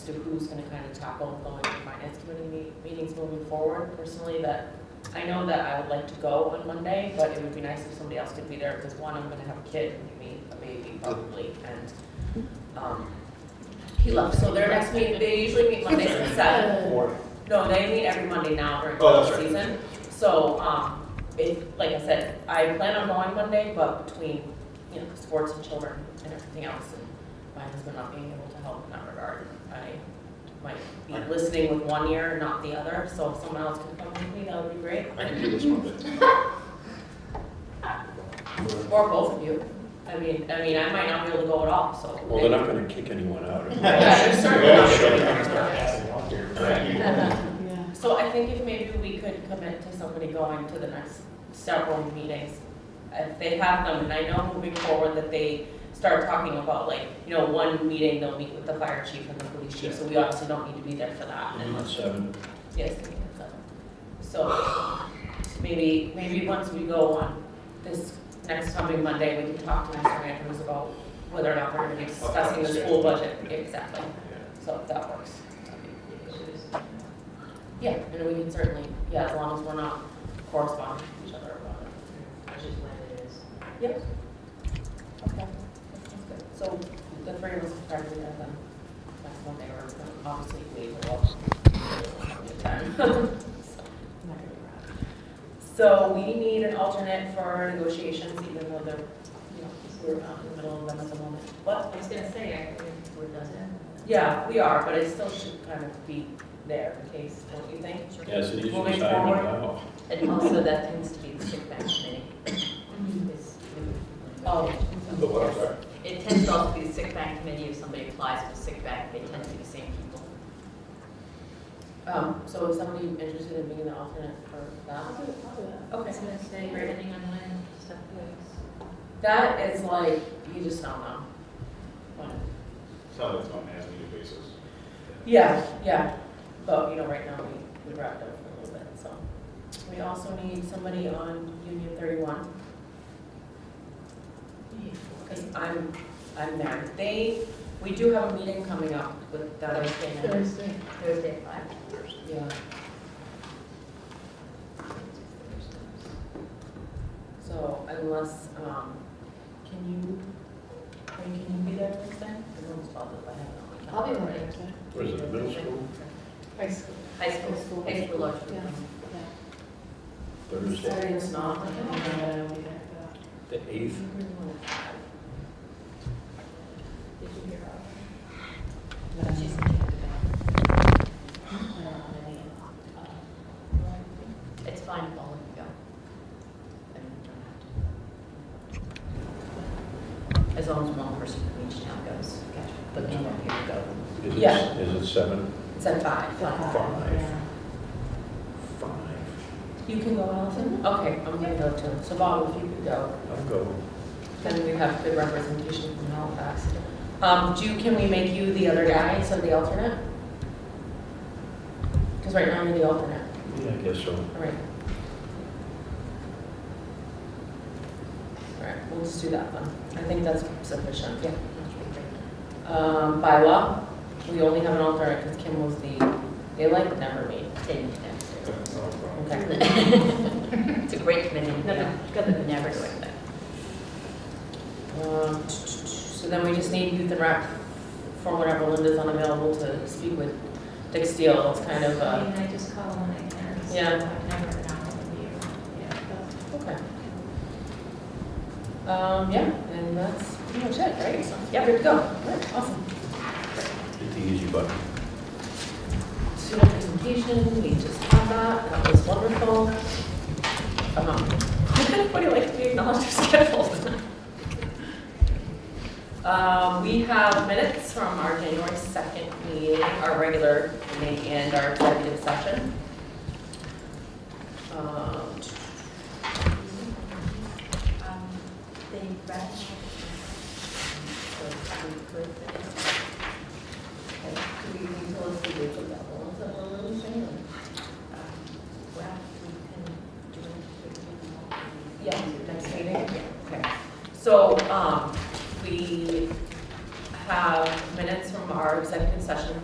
to who's gonna kind of tackle going to finance committee me- meetings moving forward. Personally, that, I know that I would like to go on Monday, but it would be nice if somebody else could be there, because one, I'm gonna have a kid, maybe, a baby probably, and, um, he left, so their next meeting, they usually meet Mondays at seven. Or, No, they meet every Monday now during Oh, the that's right. season. So, um, it, like I said, I plan on going Monday, but between, you know, sports and children and everything else, and my husband not being able to help in that regard, I might be Right. listening with one ear and not the other, so if someone else could come with me, that would be great. I can do this one, but. Or both of you. I mean, I mean, I might not be able to go at all, so. Well, they're not gonna kick anyone out. Yeah, you're certainly not gonna be able to go. Right. So I think if maybe we could commit to somebody going to the next several meetings, if they have them, and I know moving forward that they start talking about like, you know, one meeting, they'll meet with the fire chief and the police chief, so we obviously don't need to be there for that, and At seven. yes, they meet at seven. So, maybe, maybe once we go on this next coming Monday, we can talk to Mr. Andrews about whether or not we're gonna be discussing the school budget, exactly. So if that works. that'd be really good. Yeah, and we can certainly, yeah, as long as we're not corresponding to each other about it. Which is when it is. Yep. Okay. Sounds good. So the three of us will start doing that then. That's when they were, obviously, we were all the time. So we need an alternate for negotiations, even though they're, you know, we're not in the middle of them at the moment. What? I was gonna say, I think we're done then. Yeah, we are, but it still should kind of be there in case, don't you think? Yes, it is. Moving retirement forward. now. And also that tends to be the kickback committee. is- Mm-hmm. Oh. The what, I'm sorry? It tends to also be the sick bank committee, if somebody applies for sick bank, they tend to be the same people. Um, so is somebody interested in being the alternate for that? Okay. gonna say, depending on when stuff goes. That is like, you just don't know. When- So it's on an as-needed basis. Yeah, yeah, but, you know, right now, we, we wrapped up for a little bit, so. We also need somebody on Union thirty-one. Because I'm, I'm there. They, we do have a meeting coming up with the other thing. Thursday. Thursday, at five. Yeah. So unless, um, can you, or can you be there Wednesday? I don't know if I'll do it, but I have it on my calendar. What is it, middle school? High school. High school, high school lunch. Yeah. Thursday, Sorry, it's not. the eighth. Did you hear about Yeah. She's It's fine, if all of you go. I mean, you don't have to. As long as one person from each town goes, gotcha. But then you can go. Is it, Yeah. is it seven? It's at five. Five. Five. You can go, Allison? Okay, I'm gonna go too. So Bob, if you could go, I'll go. then we have good representation from Halifax. Um, do, can we make you the other guy instead of the alternate? Because right now you're the alternate. Yeah, I guess so. All right. All right, we'll just do that then. I think that's sufficient, yeah. Um, by law, we only have an alternate because Kim was the, they like never meet. Then you can go. That's not a problem. Okay. It's a great committee. Never- never do it. Um, So then we just need youth and rep for whenever Linda's unavailable to speak with Dick Steele. It's kind of, uh, I just call when I can. Yeah. I've never not with you. okay. Um, yeah, and that's pretty much it, right? So, Yeah, good to go. All right, Awesome. Hit the easy button. student presentation, we just had that, that was wonderful. Um, Would anybody like to be acknowledged or scheduled? Um, We have minutes from our January 2nd meeting, our regular meeting and our executive session. Um, Um, They read. So we could. Do we need to list the date of that one? Is that what we're saying? Well, we can do it. Yeah, next meeting, okay. So, um, we have minutes from our executive session